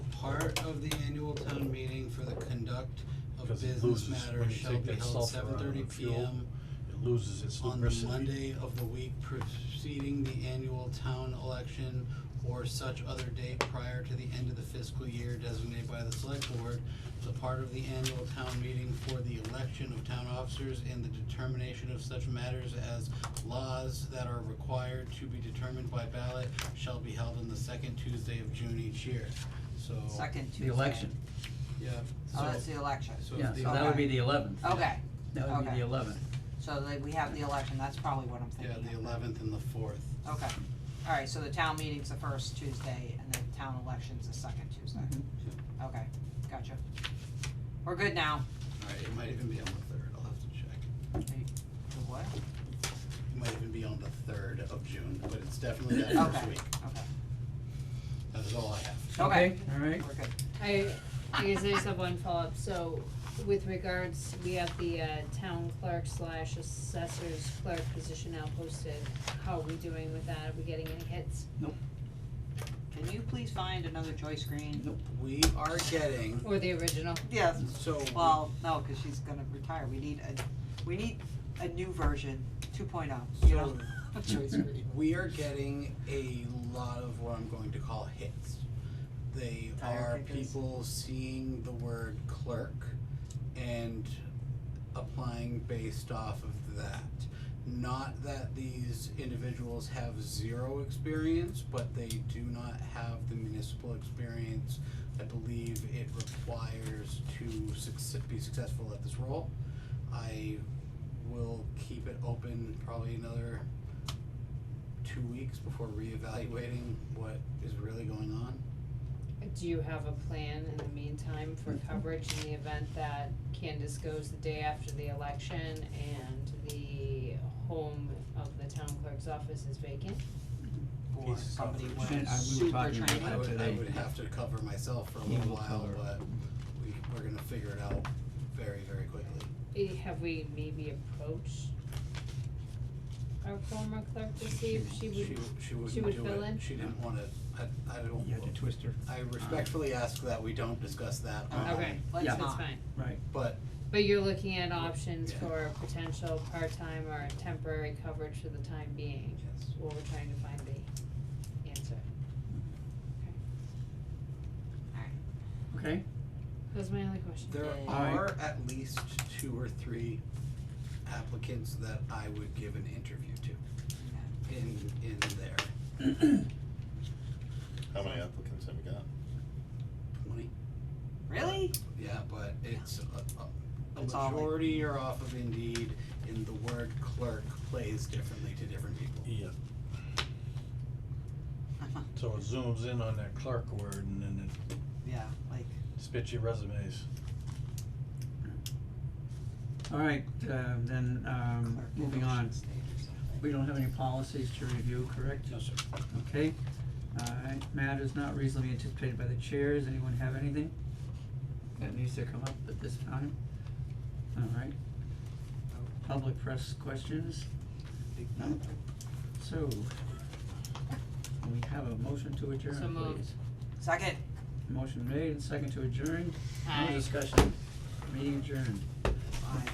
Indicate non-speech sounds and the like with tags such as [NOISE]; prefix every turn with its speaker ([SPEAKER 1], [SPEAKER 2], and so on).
[SPEAKER 1] of the annual town meeting for the conduct of
[SPEAKER 2] Because it
[SPEAKER 1] business
[SPEAKER 2] loses- when
[SPEAKER 1] matters
[SPEAKER 2] you
[SPEAKER 1] shall
[SPEAKER 2] take
[SPEAKER 1] be
[SPEAKER 2] that
[SPEAKER 1] held
[SPEAKER 2] sulfur out
[SPEAKER 1] seven
[SPEAKER 2] of
[SPEAKER 1] thirty
[SPEAKER 2] the
[SPEAKER 1] P
[SPEAKER 2] fuel,
[SPEAKER 1] M
[SPEAKER 2] It loses its
[SPEAKER 1] on the
[SPEAKER 2] lubricity.
[SPEAKER 1] Monday of the week preceding the annual town election or such other date prior to the end of the fiscal year designated by the select board, the part of the annual town meeting for the election of town officers and the determination of such matters as laws that are required to be determined by ballot shall be held on the second Tuesday of June each year, so.
[SPEAKER 3] Second Tuesday.
[SPEAKER 4] The election,
[SPEAKER 1] Yeah,
[SPEAKER 3] Oh,
[SPEAKER 1] so,
[SPEAKER 3] that's the election.
[SPEAKER 1] so
[SPEAKER 4] yeah,
[SPEAKER 1] if the,
[SPEAKER 4] so that would be
[SPEAKER 3] Okay.
[SPEAKER 4] the eleventh.
[SPEAKER 3] Okay,
[SPEAKER 4] That would be
[SPEAKER 3] Oh, okay.
[SPEAKER 4] the eleventh.
[SPEAKER 3] so that we have the election, that's probably what I'm
[SPEAKER 1] yeah,
[SPEAKER 3] thinking of.
[SPEAKER 1] the eleventh and the fourth.
[SPEAKER 3] Okay, alright, so the town meeting's the first Tuesday and the town election's the second Tuesday.
[SPEAKER 4] Mhm.
[SPEAKER 3] Okay, gotcha. We're good now.
[SPEAKER 1] Alright, it might even be on the third, I'll have to check.
[SPEAKER 3] The what?
[SPEAKER 1] It might even be on the third of June, but it's definitely that
[SPEAKER 3] Okay,
[SPEAKER 1] first week.
[SPEAKER 3] okay,
[SPEAKER 1] That is all I have.
[SPEAKER 3] Okay.
[SPEAKER 4] All right,
[SPEAKER 3] we're good.
[SPEAKER 5] I, I guess I just have one follow-up, so with regards, we have the uh town clerk slash assessors clerk position now posted, how are we doing with that, are we getting any hits?
[SPEAKER 3] Can you please find another Joyce Green?
[SPEAKER 1] We are getting,
[SPEAKER 5] Or the original,
[SPEAKER 3] Yes,
[SPEAKER 1] so,
[SPEAKER 3] well, no, cause she's gonna retire, we need a, we need a new version, two oh, you know? [LAUGHS] of Joyce Green.
[SPEAKER 1] we are getting a lot of what I'm going to call hits. They
[SPEAKER 3] Tire
[SPEAKER 1] are
[SPEAKER 3] kickers.
[SPEAKER 1] people seeing the word clerk and applying based off of that. Not that these individuals have zero experience, but they do not have the municipal experience. I believe it requires to succe- be successful at this role. I will keep it open probably another two weeks before reevaluating what is really going on.
[SPEAKER 5] do you have a plan in the meantime for coverage in the event that Candace goes the day after the election and the home of the town clerk's office is vacant?
[SPEAKER 3] Or
[SPEAKER 1] Piece of
[SPEAKER 3] somebody
[SPEAKER 1] coverage.
[SPEAKER 3] went
[SPEAKER 4] And I- we were
[SPEAKER 3] super
[SPEAKER 4] talking about
[SPEAKER 3] training.
[SPEAKER 1] I
[SPEAKER 4] that.
[SPEAKER 1] would, I
[SPEAKER 4] today.
[SPEAKER 1] would have to cover myself for a
[SPEAKER 4] He
[SPEAKER 1] little
[SPEAKER 4] will
[SPEAKER 1] while,
[SPEAKER 4] cover.
[SPEAKER 1] but we, we're gonna figure it out very, very quickly.
[SPEAKER 5] Eh, Have we maybe approached our former clerk to see if she would
[SPEAKER 1] She,
[SPEAKER 5] she
[SPEAKER 1] wouldn't
[SPEAKER 5] would
[SPEAKER 1] do
[SPEAKER 5] fill in?
[SPEAKER 1] it, she didn't wanna, I, I
[SPEAKER 4] you had to
[SPEAKER 1] don't,
[SPEAKER 4] twist her,
[SPEAKER 1] I respectfully ask that we don't discuss that, um,
[SPEAKER 5] Okay,
[SPEAKER 3] Let's
[SPEAKER 4] Yeah.
[SPEAKER 3] not.
[SPEAKER 5] that's fine.
[SPEAKER 4] right.
[SPEAKER 1] but
[SPEAKER 5] But you're looking at options
[SPEAKER 1] Yeah.
[SPEAKER 5] for potential part-time or temporary coverage for the time being,
[SPEAKER 1] yes,
[SPEAKER 5] while we're trying to find the answer.
[SPEAKER 4] Okay,
[SPEAKER 5] That was my only question.
[SPEAKER 1] there
[SPEAKER 3] Yay.
[SPEAKER 1] are at least two or three applicants that I would give an interview to in, in there,
[SPEAKER 6] How many applicants have we got?
[SPEAKER 1] twenty.
[SPEAKER 3] Really?
[SPEAKER 1] Yeah, but it's a, a, a
[SPEAKER 3] It's all like-
[SPEAKER 1] majority are off of Indeed, and the word clerk plays differently to different people.
[SPEAKER 3] [LAUGHS]
[SPEAKER 2] Yeah, so it zooms in on that clerk word and then
[SPEAKER 3] Yeah, like,
[SPEAKER 2] it spits your resumes.
[SPEAKER 4] all right, um, then, um,
[SPEAKER 3] clerk
[SPEAKER 4] moving on.
[SPEAKER 3] election state or something.
[SPEAKER 4] We don't have any policies to review, correct?
[SPEAKER 1] No, sir.
[SPEAKER 4] Okay, uh, matters not reasonably anticipated by the chairs, anyone have anything that needs to come up at this time? Alright. Public press questions, no? So, we have a motion to adjourn,
[SPEAKER 5] So moved.
[SPEAKER 4] please.
[SPEAKER 3] Second.
[SPEAKER 4] Motion made and second to adjourn, no
[SPEAKER 5] Aye.
[SPEAKER 4] discussion, meeting adjourned.